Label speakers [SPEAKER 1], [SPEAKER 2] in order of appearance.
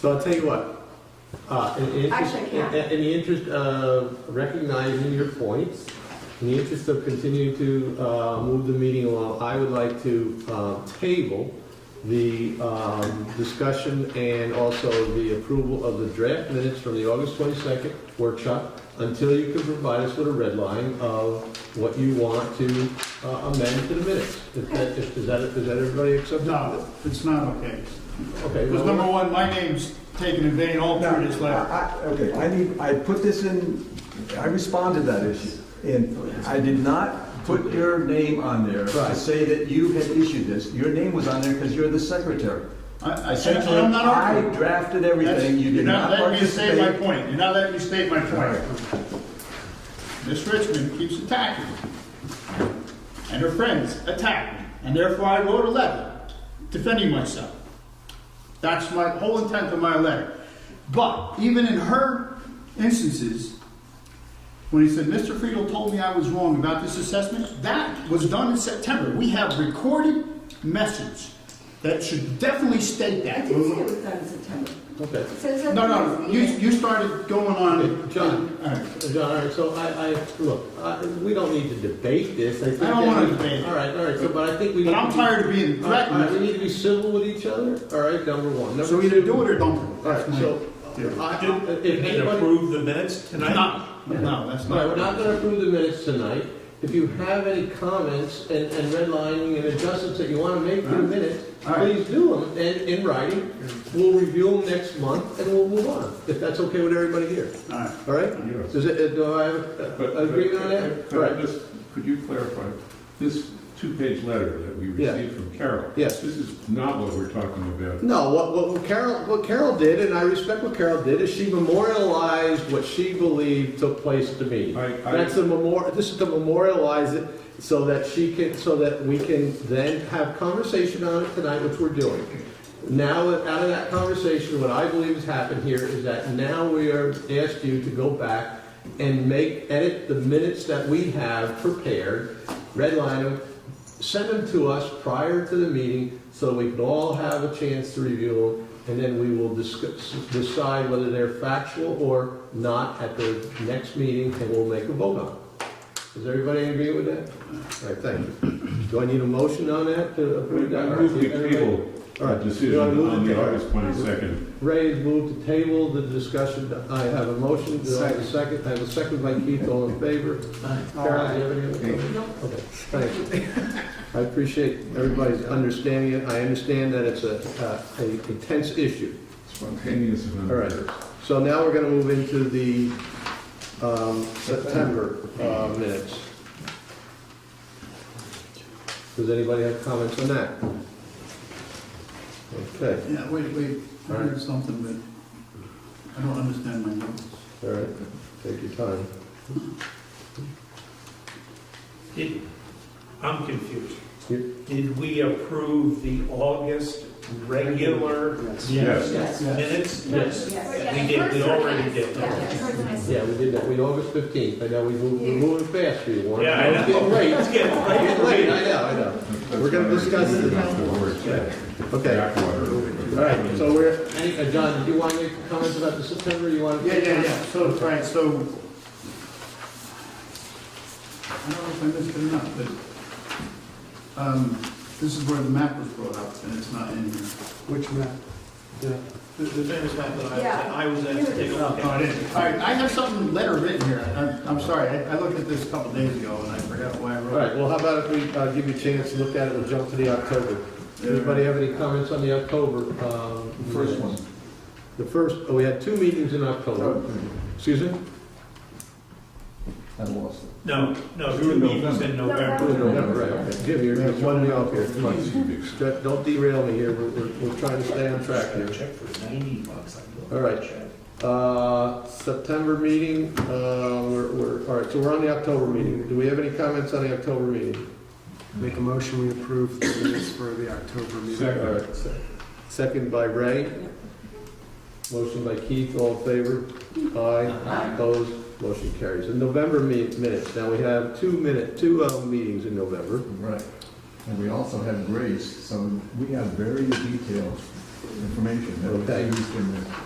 [SPEAKER 1] So I'll tell you what, uh, in, in,
[SPEAKER 2] Actually, I can't.
[SPEAKER 1] in- in the interest of recognizing your points, in the interest of continuing to, uh, move the meeting along, I would like to, um, table the, um, discussion and also the approval of the draft minutes from the August twenty-second workshop until you can provide us with a red line of what you want to uh, amend to the minutes. Is that, is is that, is that everybody acceptable?
[SPEAKER 3] No, it's not okay.
[SPEAKER 1] Okay.
[SPEAKER 3] Because
[SPEAKER 1] well,
[SPEAKER 3] number one, my name's taken in vain all
[SPEAKER 4] No,
[SPEAKER 3] through this letter.
[SPEAKER 4] I- I- Okay, I need, I put this in, I responded to that issue, and I did not put your name on there to
[SPEAKER 1] Right.
[SPEAKER 4] say that you had issued this. Your name was on there because you're the secretary.
[SPEAKER 3] I I said,
[SPEAKER 4] Essentially,
[SPEAKER 3] I'm not
[SPEAKER 4] I
[SPEAKER 3] arguing.
[SPEAKER 4] drafted
[SPEAKER 3] That's-
[SPEAKER 4] everything, you
[SPEAKER 3] You're
[SPEAKER 4] did
[SPEAKER 3] not
[SPEAKER 4] not
[SPEAKER 3] letting me state my
[SPEAKER 4] participate.
[SPEAKER 3] point. You're not letting me state my point. Miss Richmond keeps attacking me. And her friends attack me. And therefore, I wrote a letter defending myself. That's my whole intent of my letter. But even in her instances, when he said, Mr. Friedel told me I was wrong about this assessment, that was done in September. We have recorded message that should definitely state
[SPEAKER 2] I
[SPEAKER 3] that.
[SPEAKER 2] didn't say it was done in September.
[SPEAKER 1] Okay.
[SPEAKER 2] It says that.
[SPEAKER 3] No, no, no. you, you started going on.
[SPEAKER 1] Okay, John.
[SPEAKER 3] All right.
[SPEAKER 1] John, all right, so I, I, look, I- we don't need to debate this. I think
[SPEAKER 3] I don't wanna
[SPEAKER 1] that we-
[SPEAKER 3] debate it.
[SPEAKER 1] All right, all right, so, but I think we.
[SPEAKER 3] But
[SPEAKER 1] need
[SPEAKER 3] I'm
[SPEAKER 1] to be-
[SPEAKER 3] tired of being
[SPEAKER 1] All right, all right, we
[SPEAKER 3] threatened.
[SPEAKER 1] need to be civil with each other, all right, number one.
[SPEAKER 3] So
[SPEAKER 1] Number
[SPEAKER 3] either
[SPEAKER 1] two,
[SPEAKER 3] do it or don't.
[SPEAKER 1] all right, so, uh,
[SPEAKER 3] Did-
[SPEAKER 1] I,
[SPEAKER 5] Did-
[SPEAKER 1] I- if
[SPEAKER 5] And
[SPEAKER 1] anybody.
[SPEAKER 5] approve the minutes tonight?
[SPEAKER 3] No, no, that's
[SPEAKER 1] All right, we're
[SPEAKER 3] not.
[SPEAKER 1] not gonna approve the minutes tonight. If you have any comments and, and redlining and adjustments that you wanna make to the minutes,
[SPEAKER 3] All right.
[SPEAKER 1] please do them in, in writing. We'll review them next month and we'll move on, if that's okay with everybody here,
[SPEAKER 3] All right.
[SPEAKER 1] all right? Does it, uh, do I have
[SPEAKER 6] But-
[SPEAKER 1] a-
[SPEAKER 6] but-
[SPEAKER 1] a agreement on that?
[SPEAKER 6] but
[SPEAKER 1] All right,
[SPEAKER 6] just- Could you clarify, this two-page letter that we
[SPEAKER 1] Yeah.
[SPEAKER 6] received from Carol?
[SPEAKER 1] Yes.
[SPEAKER 6] This is not what we're talking about.
[SPEAKER 1] No, what, what Carol what Carol did, and I respect what Carol did, is she memorialized what she believed took place to me.
[SPEAKER 6] I- I-
[SPEAKER 1] That's the memor. This is to memorialize it so that she can so that we can then have conversation on it tonight, which we're doing. Now, out of that conversation, what I believe has happened here is that now we are asked you to go back and make edit the minutes that we have prepared, redline them, send them to us prior to the meeting so we can all have a chance to review them, and then we will discuss, decide whether they're factual or not at the next meeting, and we'll make a vote on it. Does everybody agree with that? All right, thank you. Do I need a motion on that to approve that?
[SPEAKER 6] I move we table
[SPEAKER 1] All
[SPEAKER 6] the
[SPEAKER 1] right.
[SPEAKER 6] decision
[SPEAKER 1] Do I move
[SPEAKER 6] on
[SPEAKER 1] to
[SPEAKER 6] the
[SPEAKER 1] ta-
[SPEAKER 6] August 22nd.
[SPEAKER 1] Ray has moved to table the discussion. I have a motion, do I have a second? I have a second by Keith, all in favor? Carol, do you have any other comments?
[SPEAKER 2] No.
[SPEAKER 1] Okay, thank you. I appreciate everybody's understanding it. I understand that it's a, uh, a a tense issue.
[SPEAKER 6] Spontaneous and
[SPEAKER 1] All right.
[SPEAKER 6] unrehearsed.
[SPEAKER 1] So now we're gonna move into the, um, September, uh, minutes. Does anybody have comments on that? Okay,
[SPEAKER 3] Yeah, wait, wait, I heard something, but I don't understand my notes.
[SPEAKER 1] all right, take your time.
[SPEAKER 5] Did- I'm confused.
[SPEAKER 1] Yep.
[SPEAKER 5] Did we approve the August regular
[SPEAKER 6] Yes.
[SPEAKER 2] Yes.
[SPEAKER 5] minutes?
[SPEAKER 1] Yes.
[SPEAKER 5] We did, we already did.
[SPEAKER 1] Yeah, we did that, we, August fifteenth, I know we moved, we're moving fast for you, Warren.
[SPEAKER 5] Yeah, I
[SPEAKER 1] It's getting
[SPEAKER 5] know.
[SPEAKER 1] late,
[SPEAKER 5] Let's
[SPEAKER 1] it's
[SPEAKER 5] get right
[SPEAKER 1] getting late, I know, I know. We're gonna discuss it. Okay, all right, so we're, any- uh, John, do you want to make comments about the September, you want? to-
[SPEAKER 3] Yeah, yeah, yeah, so, right, so. I don't know if I missed it or not, but, um, this is where the map was brought up, and it's not in here.
[SPEAKER 7] Which map? Yeah.
[SPEAKER 5] The famous map that
[SPEAKER 2] Yeah.
[SPEAKER 5] I was
[SPEAKER 2] at to take a
[SPEAKER 5] look
[SPEAKER 3] No, it is. All right, I have something letter written here. I'm, I'm sorry, I, I looked at this a couple days ago and I forgot why I
[SPEAKER 1] All
[SPEAKER 3] wrote it.
[SPEAKER 1] right, well, how about if we, uh, give you a chance to look at it, we'll jump to the October. Anybody have any comments on the October, um?
[SPEAKER 4] First one.
[SPEAKER 1] The first, oh, we had two meetings in
[SPEAKER 4] Oh,
[SPEAKER 1] October,
[SPEAKER 3] Oh.
[SPEAKER 1] excuse me?
[SPEAKER 4] I lost it.
[SPEAKER 5] No, no, two meetings in November.
[SPEAKER 1] November, right, okay. Jim, you're, you're one off here, come on. Don't- Don't derail me here, we're, we're, we're trying to stay on track here.
[SPEAKER 7] Check for ninety bucks. I
[SPEAKER 1] All right. Uh, September meeting, uh, we're, we're, all right, so we're on the October meeting. Do we have any comments on the October meeting?
[SPEAKER 7] Make a motion, we approve the minutes for the October meeting.
[SPEAKER 1] All
[SPEAKER 6] Second.
[SPEAKER 1] right, se- Second by Ray. Motion by Keith, all in favor? Aye. Opposed? Motion carries. And November me- minutes, now we have two minute, two, uh, meetings in November.
[SPEAKER 4] Right. And we also have Grace, so we have very detailed information that was
[SPEAKER 1] Okay.
[SPEAKER 4] used in this.